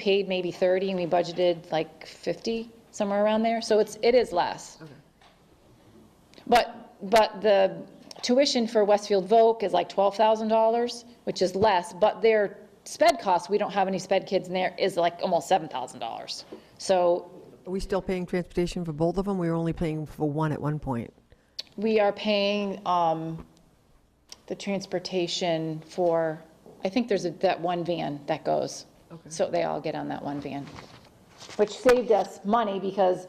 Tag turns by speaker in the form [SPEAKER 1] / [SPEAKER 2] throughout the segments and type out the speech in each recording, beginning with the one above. [SPEAKER 1] paid maybe 30 and we budgeted like 50, somewhere around there. So it's, it is less. But, but the tuition for Westfield Voc is like $12,000, which is less, but their sped costs, we don't have any sped kids in there, is like almost $7,000. So
[SPEAKER 2] Are we still paying transportation for both of them? We were only paying for one at one point.
[SPEAKER 1] we are paying um, the transportation for, I think there's a- that one van that goes. So they all get on that one van, which saved us money because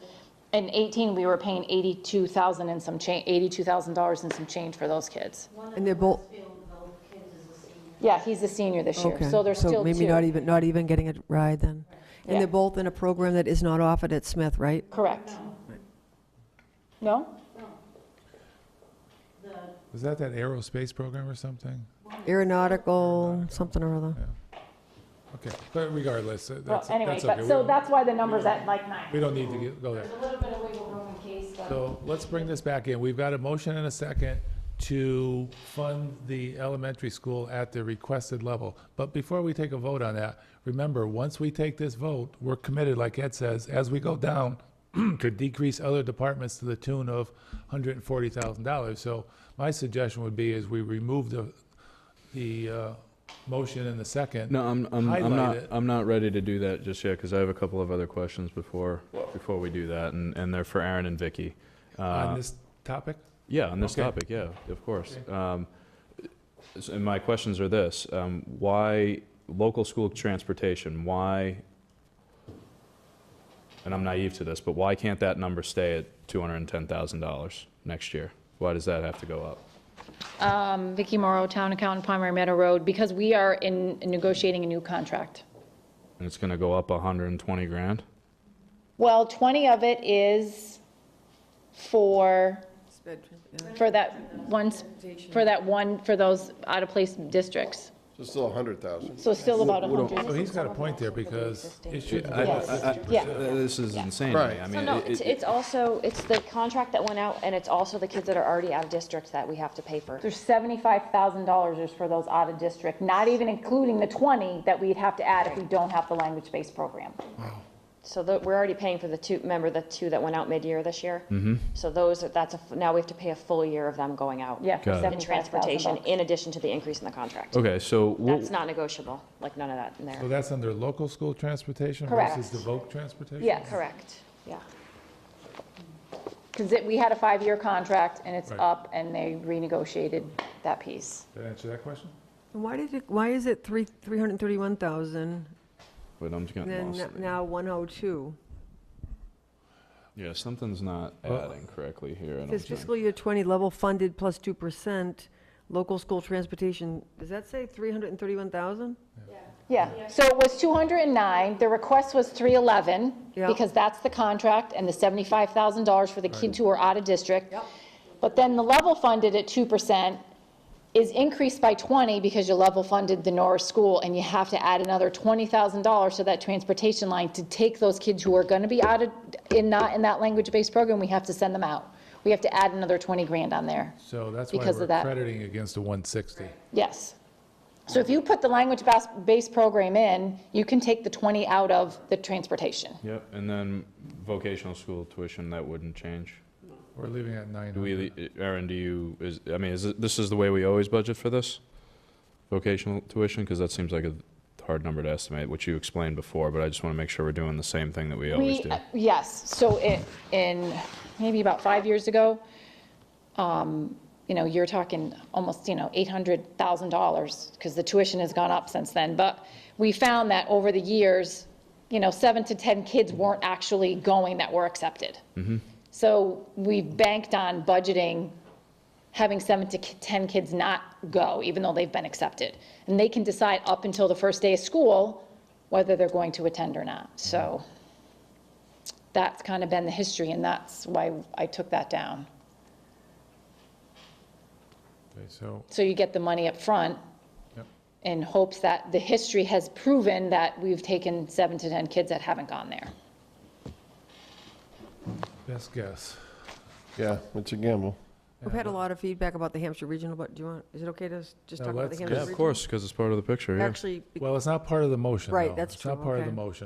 [SPEAKER 1] in 18, we were paying 82,000 and some change, $82,000 and some change for those kids.
[SPEAKER 2] And they're both,
[SPEAKER 1] Yeah, he's a senior this year,
[SPEAKER 2] okay.
[SPEAKER 1] so there's still
[SPEAKER 2] maybe not
[SPEAKER 1] two.
[SPEAKER 2] even, not even getting a ride then.
[SPEAKER 1] Yeah.
[SPEAKER 2] And they're both in a program that is not offered at Smith, right?
[SPEAKER 1] Correct. No?
[SPEAKER 3] Was that that aerospace program or something?
[SPEAKER 2] Aeronautical, something or other.
[SPEAKER 3] Okay, but regardless, uh,
[SPEAKER 1] Well,
[SPEAKER 3] that's,
[SPEAKER 1] anyway,
[SPEAKER 3] that's okay.
[SPEAKER 1] but,
[SPEAKER 3] We
[SPEAKER 1] so
[SPEAKER 3] don't-
[SPEAKER 1] that's why the number's at like
[SPEAKER 3] We
[SPEAKER 1] nine.
[SPEAKER 3] don't need to get- go there.
[SPEAKER 1] A little bit of wiggle room in case, but.
[SPEAKER 3] So let's bring this back in. We've got a motion and a second to fund the elementary school at the requested level. But before we take a vote on that, remember, once we take this vote, we're committed, like Ed says, as we go down, to decrease other departments to the tune of hundred and forty thousand dollars. So my suggestion would be is we remove the, the, uh, motion and the second.
[SPEAKER 4] No, I'm, I'm,
[SPEAKER 3] Highlight
[SPEAKER 4] I'm not,
[SPEAKER 3] it.
[SPEAKER 4] I'm not ready to do that just yet, because I have a couple of other questions before, before we do that, and, and they're for Aaron and Vicky. uh,
[SPEAKER 3] On this topic?
[SPEAKER 4] Yeah, on this
[SPEAKER 3] Okay.
[SPEAKER 4] topic, yeah, of course. Um, s- And my questions are this, um, why local school transportation, why, and I'm naive to this, but why can't that number stay at $210,000 next year? Why does that have to go up?
[SPEAKER 1] Um, Vicky Morrow, Town Accountant, Palmer Meadow Road, because we are in negotiating a new contract.
[SPEAKER 4] And it's gonna go up 120 grand?
[SPEAKER 1] Well, 20 of it is for, for that one, for that one, for those out-of-place districts.
[SPEAKER 5] So still a hundred thousand.
[SPEAKER 1] So still about
[SPEAKER 3] So
[SPEAKER 1] 100.
[SPEAKER 3] Oh, he's got a point there because it should.
[SPEAKER 4] I- I- I-
[SPEAKER 1] Yeah.
[SPEAKER 4] This is insane to me.
[SPEAKER 5] Right.
[SPEAKER 4] I
[SPEAKER 6] So
[SPEAKER 4] mean,
[SPEAKER 6] no,
[SPEAKER 4] it-
[SPEAKER 6] it's,
[SPEAKER 4] it-
[SPEAKER 6] it's also, it's the contract that went out, and it's also the kids that are already out of district that we have to pay for.
[SPEAKER 1] There's $75,000 is for those out-of-district, not even including the 20 that we'd have to add if we don't have the language-based program.
[SPEAKER 6] So the, we're already paying for the two, remember the two that went out mid-year this year? Mm-hmm. So those, are- that's a, f- now we have to pay a full year of them going out.
[SPEAKER 1] Yeah, for
[SPEAKER 4] Got it.
[SPEAKER 6] In
[SPEAKER 1] $75,000.
[SPEAKER 6] transportation, in addition to the increase in the contract.
[SPEAKER 4] Okay, so wh-
[SPEAKER 6] That's not negotiable, like none of that in
[SPEAKER 3] So
[SPEAKER 6] there.
[SPEAKER 3] that's under local school transportation
[SPEAKER 1] Correct.
[SPEAKER 3] versus the voc transportation?
[SPEAKER 1] Yes.
[SPEAKER 6] Correct, yeah.
[SPEAKER 1] Because we had a five-year contract, and it's
[SPEAKER 3] Right.
[SPEAKER 1] up, and they renegotiated that piece.
[SPEAKER 3] Did I answer that question?
[SPEAKER 2] And Why did it, why is it three, 331,000,
[SPEAKER 4] But I'm just
[SPEAKER 2] and
[SPEAKER 4] getting
[SPEAKER 2] then
[SPEAKER 4] lost.
[SPEAKER 2] n- now 102?
[SPEAKER 4] Yeah, something's not
[SPEAKER 3] Well-
[SPEAKER 4] adding correctly here. and I'm
[SPEAKER 2] Says
[SPEAKER 4] trying-
[SPEAKER 2] fiscal year 20 level funded plus 2%, local school transportation, does that say 331,000?
[SPEAKER 1] Yeah, so it was 209, the request was 311,
[SPEAKER 2] Yeah.
[SPEAKER 1] because that's the contract and the $75,000 for the kids who are out of district. But then the level funded at 2% is increased by 20 because you level funded the Norris School, and you have to add another $20,000 to that transportation line to take those kids who are going to be out of, in, not in that language-based program, we have to send them out. We have to add another 20 grand on there.
[SPEAKER 3] So that's why
[SPEAKER 1] Because of
[SPEAKER 3] we're
[SPEAKER 1] that.
[SPEAKER 3] crediting against the 160.
[SPEAKER 1] Yes. So if you put the language-based program in, you can take the 20 out of the transportation.
[SPEAKER 4] Yep, and then vocational school tuition, that wouldn't change.
[SPEAKER 3] We're leaving at nine.
[SPEAKER 4] Do
[SPEAKER 3] on
[SPEAKER 4] we,
[SPEAKER 3] that.
[SPEAKER 4] Aaron, do you, is, I mean, is, it- this is the way we always budget for this? Vocational tuition, because that seems like a hard number to estimate, which you explained before, but I just want to make sure we're doing the same thing that we always
[SPEAKER 1] We,
[SPEAKER 4] do.
[SPEAKER 1] uh, yes, so in, in, maybe about five years ago, um, you know, you're talking almost, you know, $800,000, because the tuition has gone up since then, but we found that over the years, you know, seven to 10 kids weren't actually going that were accepted.
[SPEAKER 4] Mm-hmm.
[SPEAKER 1] So we banked on budgeting, having seven to ki- 10 kids not go, even though they've been accepted. And they can decide up until the first day of school whether they're going to attend or not.
[SPEAKER 4] Mm-hmm.
[SPEAKER 1] So that's kind of been the history, and that's why I took that down.
[SPEAKER 3] Okay, So,
[SPEAKER 1] So you get the money up front
[SPEAKER 3] yep.
[SPEAKER 1] in hopes that the history has proven that we've taken seven to 10 kids that haven't gone there.
[SPEAKER 3] best guess.
[SPEAKER 5] Yeah, it's a gamble.
[SPEAKER 2] We've had a lot of feedback about the Hampshire Regional, but do you want, is it okay to s- just
[SPEAKER 3] No,
[SPEAKER 2] talk about the
[SPEAKER 3] let's-
[SPEAKER 2] Hampshire
[SPEAKER 4] Yeah,
[SPEAKER 2] Regional?
[SPEAKER 4] of course, because it's part of the picture, yeah.
[SPEAKER 2] Actually,
[SPEAKER 3] Well, it's not part of the motion,
[SPEAKER 2] Right,
[SPEAKER 3] though.
[SPEAKER 2] that's
[SPEAKER 3] It's not
[SPEAKER 2] true,
[SPEAKER 3] part of the
[SPEAKER 2] okay.
[SPEAKER 3] motion.